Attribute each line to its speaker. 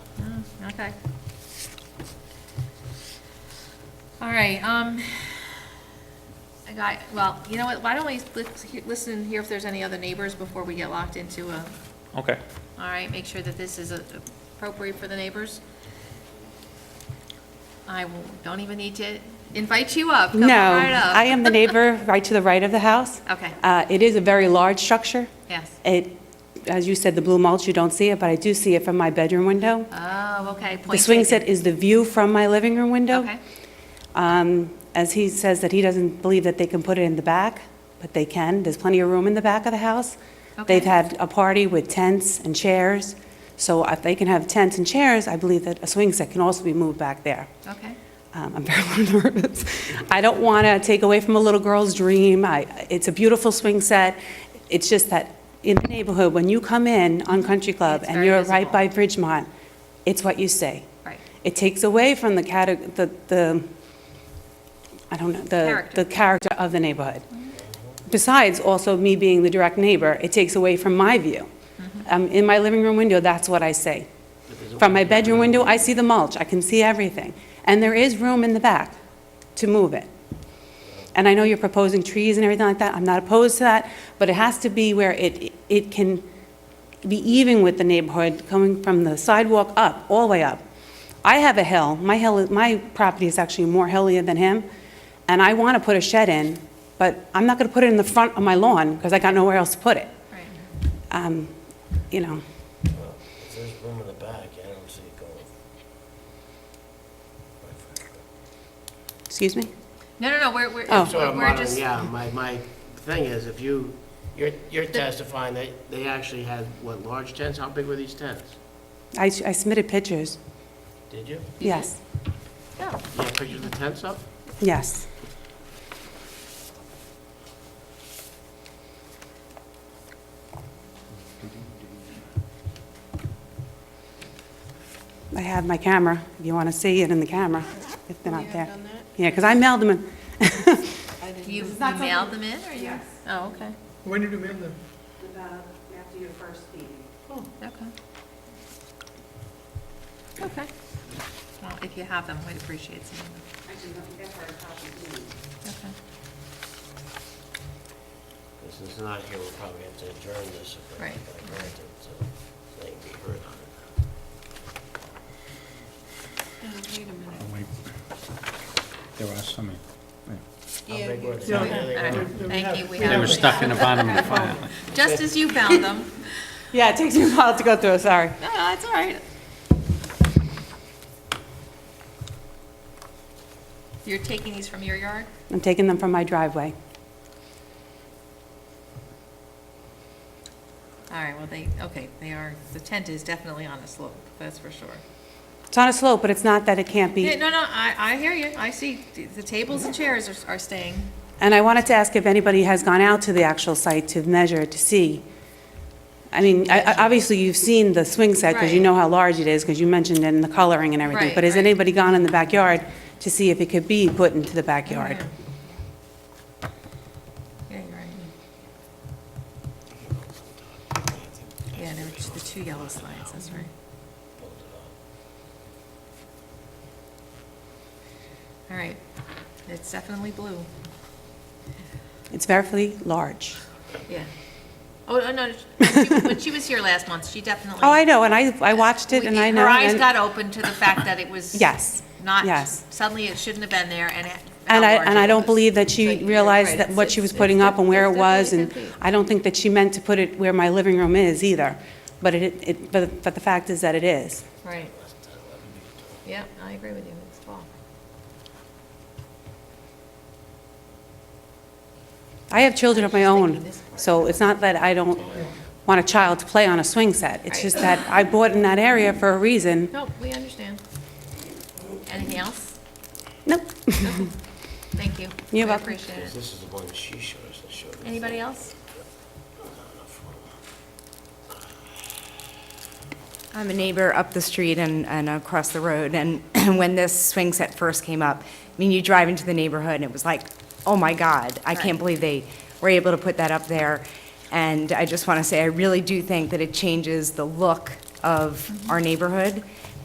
Speaker 1: Mm, Okay. All right, um, I got, well, you know what, why don't we lis- he- listen, and hear if there's any other neighbors before we get locked into a,
Speaker 2: Okay.
Speaker 1: all right, make sure that this is uh, appropriate for the neighbors. I will- don't even need to invite you up, come
Speaker 3: No,
Speaker 1: right up.
Speaker 3: I am the neighbor right to the right of the house.
Speaker 1: Okay.
Speaker 3: Uh, It is a very large structure.
Speaker 1: Yes.
Speaker 3: It, as you said, the blue mulch, you don't see it, but I do see it from my bedroom window.
Speaker 1: Oh, okay.
Speaker 3: The
Speaker 1: point
Speaker 3: swing
Speaker 1: taken.
Speaker 3: set is the view from my living room window.
Speaker 1: Okay,
Speaker 3: Um, As he says that he doesn't believe that they can put it in the back, but they can. There's plenty of room in the back of the house.
Speaker 1: Okay.
Speaker 3: They've had a party with tents and chairs, so if they can have tents and chairs, I believe that a swing set can also be moved back there.
Speaker 1: okay.
Speaker 3: Um, I'm very nervous. I don't want to take away from a little girl's dream. I, it's a beautiful swing set. It's just that in the neighborhood, when you come in on Country Club
Speaker 1: It's
Speaker 3: and
Speaker 1: very
Speaker 3: you're right
Speaker 1: visible.
Speaker 3: by Bridgemont, it's what you see.
Speaker 1: Right.
Speaker 3: It takes away from the cate- the, the, I don't know, the,
Speaker 1: Character.
Speaker 3: the character of the neighborhood. Besides, also me being the direct neighbor, it takes away from my view. Um, in my living room window, that's what I see. From my bedroom window, I see the mulch, I can see everything. And there is room in the back to move it. And I know you're proposing trees and everything like that, I'm not opposed to that, but it has to be where it, it can be even with the neighborhood, coming from the sidewalk up, all the way up. I have a hill, my hill, my property is actually more hillier than him, and I want to put a shed in, but I'm not going to put it in the front of my lawn, because I got nowhere else to put it.
Speaker 1: Right.
Speaker 3: Um, You know,
Speaker 4: Well, if there's room in the back, I don't see it going.
Speaker 3: excuse me?
Speaker 1: No, no, no, we're, we're,
Speaker 3: Oh.
Speaker 4: So
Speaker 1: we're
Speaker 4: I'm
Speaker 1: we're
Speaker 4: wondering,
Speaker 1: just,
Speaker 4: yeah, my, my thing is, if you, you're, you're testifying that they actually had, what, large tents? How big were these tents?
Speaker 3: I I submitted pictures,
Speaker 4: Did you?
Speaker 3: yes,
Speaker 1: no.
Speaker 4: You have pictures of the tents up?
Speaker 3: yes. I have my camera, if you want to see it in the camera, if they're not there. Yeah, because I mailed them, in.
Speaker 1: You you mailed them in, or you? Oh, okay,
Speaker 5: When did you mail them?
Speaker 3: After your first meeting.
Speaker 1: Oh, okay. Okay. Well, if you have them, we'd appreciate seeing them. Okay.
Speaker 4: This is not here, we'll probably have to adjourn this if they
Speaker 1: Right.
Speaker 4: if they grant it, so so they can be heard on it.
Speaker 6: There are some, yeah.
Speaker 4: How big were
Speaker 5: Yeah.
Speaker 4: they?
Speaker 1: All
Speaker 4: How
Speaker 1: right,
Speaker 4: big were they?
Speaker 1: Thank you, we
Speaker 6: they were
Speaker 1: have,
Speaker 6: stuck in the bottom of the file.
Speaker 1: just as you bound them.
Speaker 3: Yeah, it takes me a while to go through, sorry.
Speaker 1: No, no, that's all right. You're taking these from your yard?
Speaker 3: I'm taking them from my driveway.
Speaker 1: All right, well, they, okay, they are, the tent is definitely on a slope, that's for sure.
Speaker 3: It's on a slope, but it's not that it can't
Speaker 1: Yeah,
Speaker 3: be.
Speaker 1: no, no, I, I hear you, I see, the- the tables and chairs are, are staying.
Speaker 3: And I wanted to ask if anybody has gone out to the actual site to measure, to see. I mean, I- I- obviously, you've seen the swing set, because you
Speaker 1: Right.
Speaker 3: know how large it is, because you mentioned it and the coloring and everything.
Speaker 1: Right,
Speaker 3: But has
Speaker 1: right.
Speaker 3: anybody gone in the backyard to see if it could be put into the backyard?
Speaker 1: Yeah, you're right. Yeah, there were just the two yellow slides, that's right. All right, it's definitely blue,
Speaker 3: It's very large.
Speaker 1: yeah. Oh, no, no, she- when she was here last month, she definitely.
Speaker 3: Oh, I know, and I I watched it,
Speaker 1: We-
Speaker 3: and I know.
Speaker 1: Her eyes
Speaker 3: and-
Speaker 1: got open to the fact that it was.
Speaker 3: Yes,
Speaker 1: Not,
Speaker 3: yes.
Speaker 1: suddenly it shouldn't have been there and. it- how
Speaker 3: And I,
Speaker 1: large
Speaker 3: and
Speaker 1: it
Speaker 3: I don't
Speaker 1: was.
Speaker 3: believe that
Speaker 1: So
Speaker 3: she
Speaker 1: you're right,
Speaker 3: realized that what
Speaker 1: it's-
Speaker 3: she was
Speaker 1: it's-
Speaker 3: putting
Speaker 1: it's
Speaker 3: up and where it
Speaker 1: definitely
Speaker 3: was, and
Speaker 1: complete.
Speaker 3: I don't think that she meant to put it where my living room is either, but it, it, but, but the fact is that it is.
Speaker 1: Right. Yeah, I agree with you, it's tall.
Speaker 3: I have children of my
Speaker 1: thinking
Speaker 3: own,
Speaker 1: this part.
Speaker 3: so it's not that I don't want a child to play on a swing set, it's just that I bought in that area for a reason.
Speaker 1: No, we understand. Anything else?
Speaker 3: Nope,
Speaker 1: Thank you.
Speaker 3: You're
Speaker 1: We
Speaker 3: welcome.
Speaker 1: Appreciate it.
Speaker 4: This is the one she showed us, that showed us.
Speaker 1: Anybody else?
Speaker 7: I'm a neighbor up the street and, and across the road, and when this swing set first came up, I mean, you drive into the neighborhood, and it was like, oh my God, I
Speaker 1: Right.
Speaker 7: can't believe they were able to put that up there. And I just want to say, I really do think that it changes the look of our neighborhood.